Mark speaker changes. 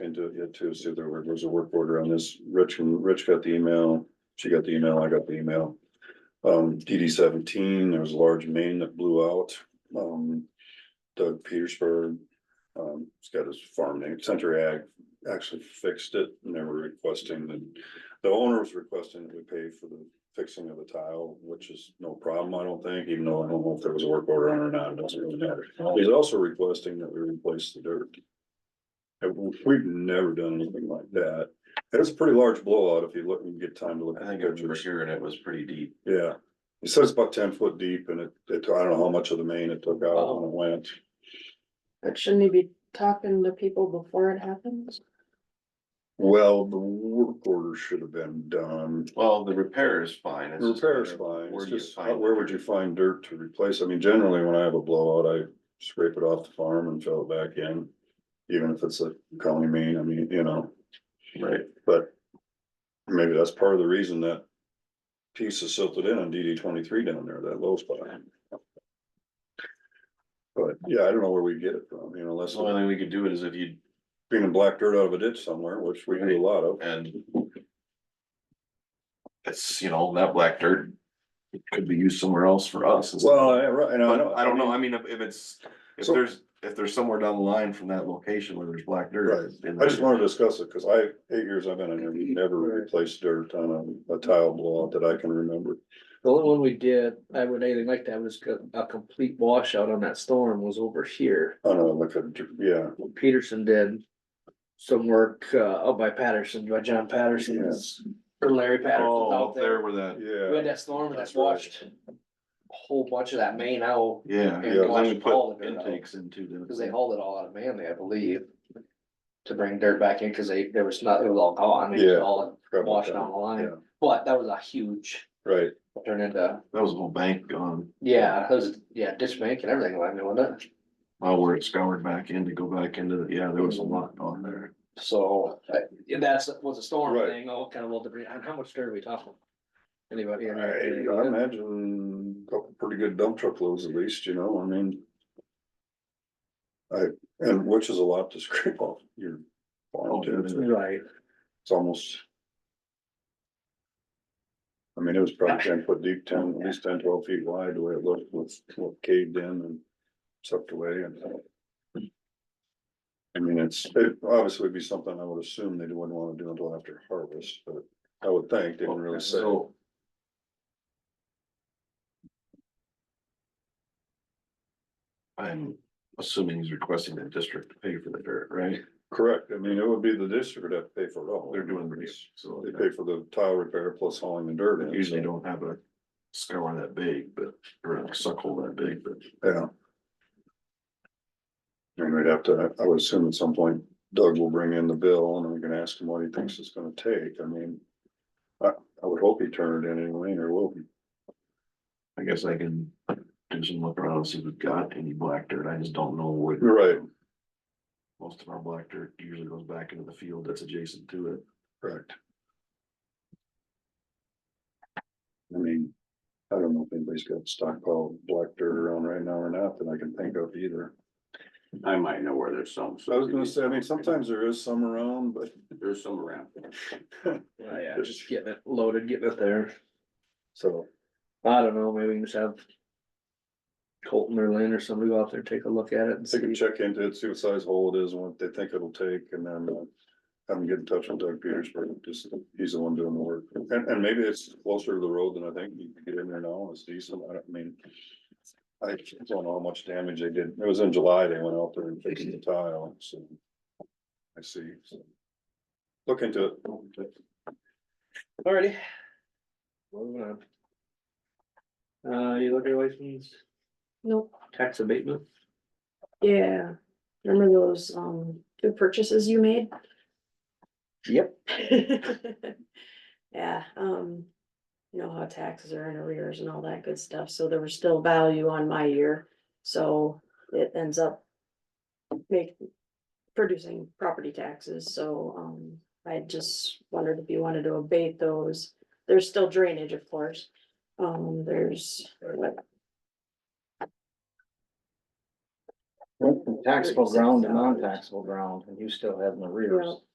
Speaker 1: into it yet too, see if there were- there was a work order on this. Rich, and Rich got the email, she got the email, I got the email. Um, DD seventeen, there was a large main that blew out, um, Doug Petersburg. Um, he's got his farm name, Center Ag, actually fixed it, and they were requesting that, the owner was requesting that we pay for the fixing of the tile, which is no problem, I don't think, even though I don't know if there was a work order on it or not, it doesn't really matter. He's also requesting that we replace the dirt. And we- we've never done anything like that. It was a pretty large blowout if you look and get time to look.
Speaker 2: I
Speaker 1: at
Speaker 2: think
Speaker 1: the
Speaker 2: I remember
Speaker 1: pictures.
Speaker 2: hearing it was pretty deep.
Speaker 1: Yeah, he said it's about ten foot deep and it, it, I don't know how much of the main it took out when it went.
Speaker 3: But shouldn't he be talking to people before it happens?
Speaker 1: Well, the work order should have been done.
Speaker 2: Well, the repair is fine. it's just
Speaker 1: Repair's
Speaker 2: where-
Speaker 1: fine,
Speaker 2: where
Speaker 1: it's
Speaker 2: do you
Speaker 1: just,
Speaker 2: find
Speaker 1: where
Speaker 2: the
Speaker 1: would you
Speaker 2: dirt?
Speaker 1: find dirt to replace? I mean, generally, when I have a blowout, I scrape it off the farm and fill it back in. Even if it's a county main, I mean, you know,
Speaker 2: Right,
Speaker 1: but maybe that's part of the reason that piece is silted in on DD twenty-three down there, that low spot. But, yeah, I don't know where we get it from, you know,
Speaker 2: so
Speaker 1: unless
Speaker 2: the only thing we could do it is if you,
Speaker 1: being black dirt out of a ditch somewhere, which we do a lot of.
Speaker 2: and. It's, you know, that black dirt could be used somewhere else for us. it's-
Speaker 1: Well, I, right, and I
Speaker 2: But
Speaker 1: know.
Speaker 2: I don't know, I mean, if, if it's, if
Speaker 1: So-
Speaker 2: there's, if there's somewhere down the line from that location where there's black dirt.
Speaker 1: Right.
Speaker 2: then
Speaker 1: I just wanted to discuss it, cause I, eight years I've been in here, we never replaced dirt on a, a tile blowout that I can remember.
Speaker 4: The only one we did, I would anything like that was co- a complete washout on that storm was over here.
Speaker 1: On a, like a, yeah,
Speaker 4: When Peterson did some work uh up by Patterson, by John Patterson's or Larry Patterson's
Speaker 2: Oh,
Speaker 4: out
Speaker 2: up there
Speaker 4: there.
Speaker 2: where that,
Speaker 4: We had
Speaker 1: yeah,
Speaker 4: that storm
Speaker 1: That's
Speaker 4: that's
Speaker 1: right.
Speaker 4: washed a whole bunch of that main out
Speaker 2: yeah,
Speaker 4: Yeah,
Speaker 2: because then we
Speaker 4: watch all
Speaker 2: put
Speaker 4: the dirt out.
Speaker 2: intakes into the.
Speaker 4: because they hauled it all out of Manly, I believe. To bring dirt back in because they there was not, it was all gone. It
Speaker 1: Yeah.
Speaker 4: was all
Speaker 1: Crap like
Speaker 4: washed
Speaker 1: that.
Speaker 4: down the line.
Speaker 1: Yeah.
Speaker 4: But that was a huge
Speaker 1: right,
Speaker 4: turn into,
Speaker 2: That was a whole bank gone,
Speaker 4: yeah, it was, yeah, ditch bank and everything, I mean, wasn't it?
Speaker 2: uh, where it scoured back in to go back into, the yeah, there was a lot on there.
Speaker 4: So, uh, yeah, that's, was a storm
Speaker 1: Right.
Speaker 4: thing, all kind of little debris, and how much dirt are we talking? Anybody?
Speaker 1: I, I imagine a couple pretty good dump truck loads at least, you know, I mean. I, and which is a lot to scrape off your farm, too.
Speaker 4: Right,
Speaker 1: it's almost. I mean, it was probably ten foot deep, ten, at least ten, twelve feet wide, the way it looked, was caved in and sucked away and. I mean, it's, it obviously would be something I would assume they wouldn't wanna do until after harvest, but I would think, they didn't really say.
Speaker 2: So- I'm assuming he's requesting the district to pay for the dirt, right?
Speaker 1: Correct, I mean, it would be the district that pay for it all.
Speaker 2: They're doing this, so
Speaker 1: They pay for the tile repair plus hauling the dirt in.
Speaker 2: they usually don't have a scour that big, but, or a suck hole that big, but.
Speaker 1: Yeah. And we'd have to, I would assume at some point Doug will bring in the bill and we can ask him what he thinks it's gonna take, I mean. I, I would hope he turned it in anyway, or will be,
Speaker 2: I guess I can do some look around, and see if we've got any black dirt, I just don't know what.
Speaker 1: You're right.
Speaker 2: Most of our black dirt usually goes back into the field that's adjacent to it.
Speaker 1: correct? I mean, I don't know if anybody's got stockpile black dirt around right now or not that I can think of either.
Speaker 5: I might know where there's some.
Speaker 1: I was gonna say, I mean, sometimes there is some around, but
Speaker 5: There's some around.
Speaker 4: Well, yeah, just getting it loaded, getting it there,
Speaker 1: so,
Speaker 4: I don't know, maybe we can just have. Colton or Lynn or somebody go out there, take a look at it and
Speaker 1: they can
Speaker 4: see,
Speaker 1: check into it, see what size hole it is, and what they think it'll take, and then. uh, Have them get in touch with Doug Petersburg, just, he's the one doing the work, and, and maybe it's closer to the road than I think, you can get in there now, it's decent, I don't mean. I don't know how much damage they did, it was in July, they went out there and fixed the tile, so. I see, so. Look into it,
Speaker 4: alrighty. Moving on. Uh, you look at license,
Speaker 3: Nope,
Speaker 4: tax abatement,
Speaker 3: yeah, remember those, um, two purchases you made?
Speaker 4: yep,
Speaker 3: Yeah, um, you know how taxes are in arrears and all that good stuff, so there was still value on my year, so it ends up. Make, producing property taxes, so, um, I just wondered if you wanted to abate those. There's still drainage, of course, um, there's what?
Speaker 4: Went from taxable ground to non-taxable ground, and you still have an arrears.
Speaker 3: Yeah.